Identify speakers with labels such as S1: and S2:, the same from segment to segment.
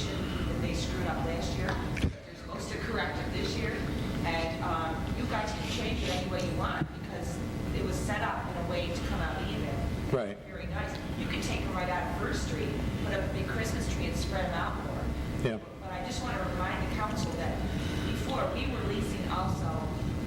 S1: um,
S2: Right.
S1: Very nice. You could take them right out of First Street, put up a big Christmas tree and spread them out more.
S2: Yeah.
S1: But I just want to remind the council that before, we were leasing also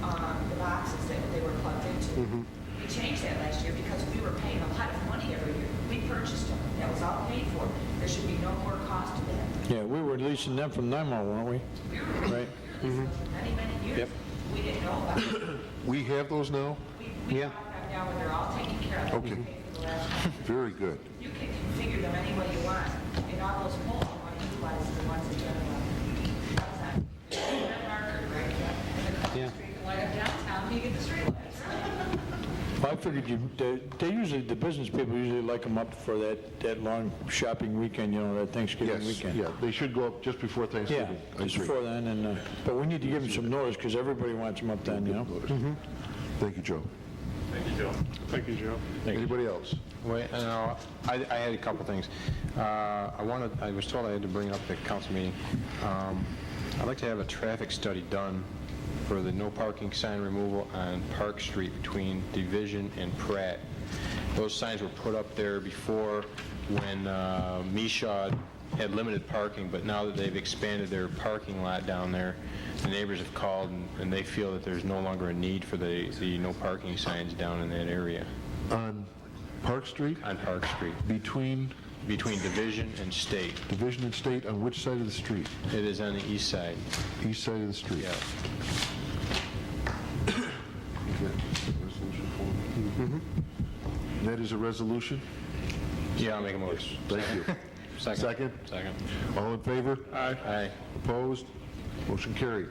S1: um, the boxes that they were plugged
S2: Mm-hmm.
S1: into. We changed that last year because we were paying a lot of money every year. We purchased them, that was all paid for. There should be no more cost to them.
S2: Yeah, we were leasing them from NYMar, weren't we?
S1: We were
S2: Right. Mm-hmm.
S1: we were leasing them for many, many years.
S2: Yep.
S1: We didn't know about it.
S3: We have those now?
S1: We- We
S2: Yeah.
S1: found out now when they're all taken care of.
S3: Okay.
S1: We paid for the last one.
S3: Very good.
S1: You can configure them any way you want, and all those poles, you want to utilize the ones that you have. left. That's not- marker, right? And across the
S2: Yeah.
S1: street, you light up downtown, you get the street lights.
S2: Well, I figured you, they they usually, the business people usually like them up for that, that long shopping weekend, you know, that Thanksgiving
S3: Yes,
S2: weekend.
S3: yeah, they should go up just before
S2: Yeah,
S3: Thanksgiving. I
S2: just
S3: agree.
S2: before then, and, uh, but we need to give them some notice, because everybody wants them up then, you know?
S3: Thank you, Joe.
S4: Thank you, Joe. Thank you, Joe.
S3: Anybody else?
S5: Wait, no, I, I had a couple things. Uh, I wanted, I was told I had to bring up the council meeting. Um, I'd like to have a traffic study done for the no parking sign removal on Park Street between Division and Pratt. Those signs were put up there before when uh, Misha had limited parking, but now that they've expanded their parking lot down there, the neighbors have called and- and they feel that there's no longer a need for the, the no parking signs down in that area
S3: On Park Street,
S5: on Park Street
S3: between
S5: between Division and State.
S3: Division and State, on which side of the street?
S5: It is on the east side.
S3: East side of the street?
S5: Yeah.
S3: And That is a resolution?
S5: Yeah, I'll make a motion.
S3: Thank you.
S5: Second.
S3: Second?
S5: Second.
S3: All in favor?
S5: Aye.
S3: Opposed? Motion carried.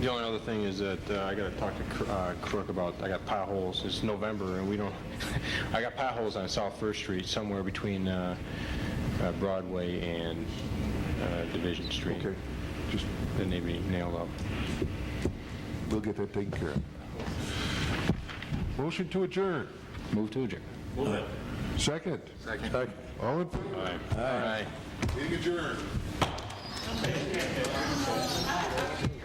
S5: The only other thing is that uh, I gotta talk to Cro- uh, Crook about, I got potholes, it's November and we don't, I got potholes on South First Street somewhere between uh, uh, Broadway and uh, Division Street.
S3: Okay, just,
S5: That need to be nailed up.
S3: we'll get that taken care of. Motion to adjourn.
S5: Move to adjourn.
S3: Second?
S2: Second.
S3: All in favor?
S5: Aye. Aye.
S3: Meeting adjourned.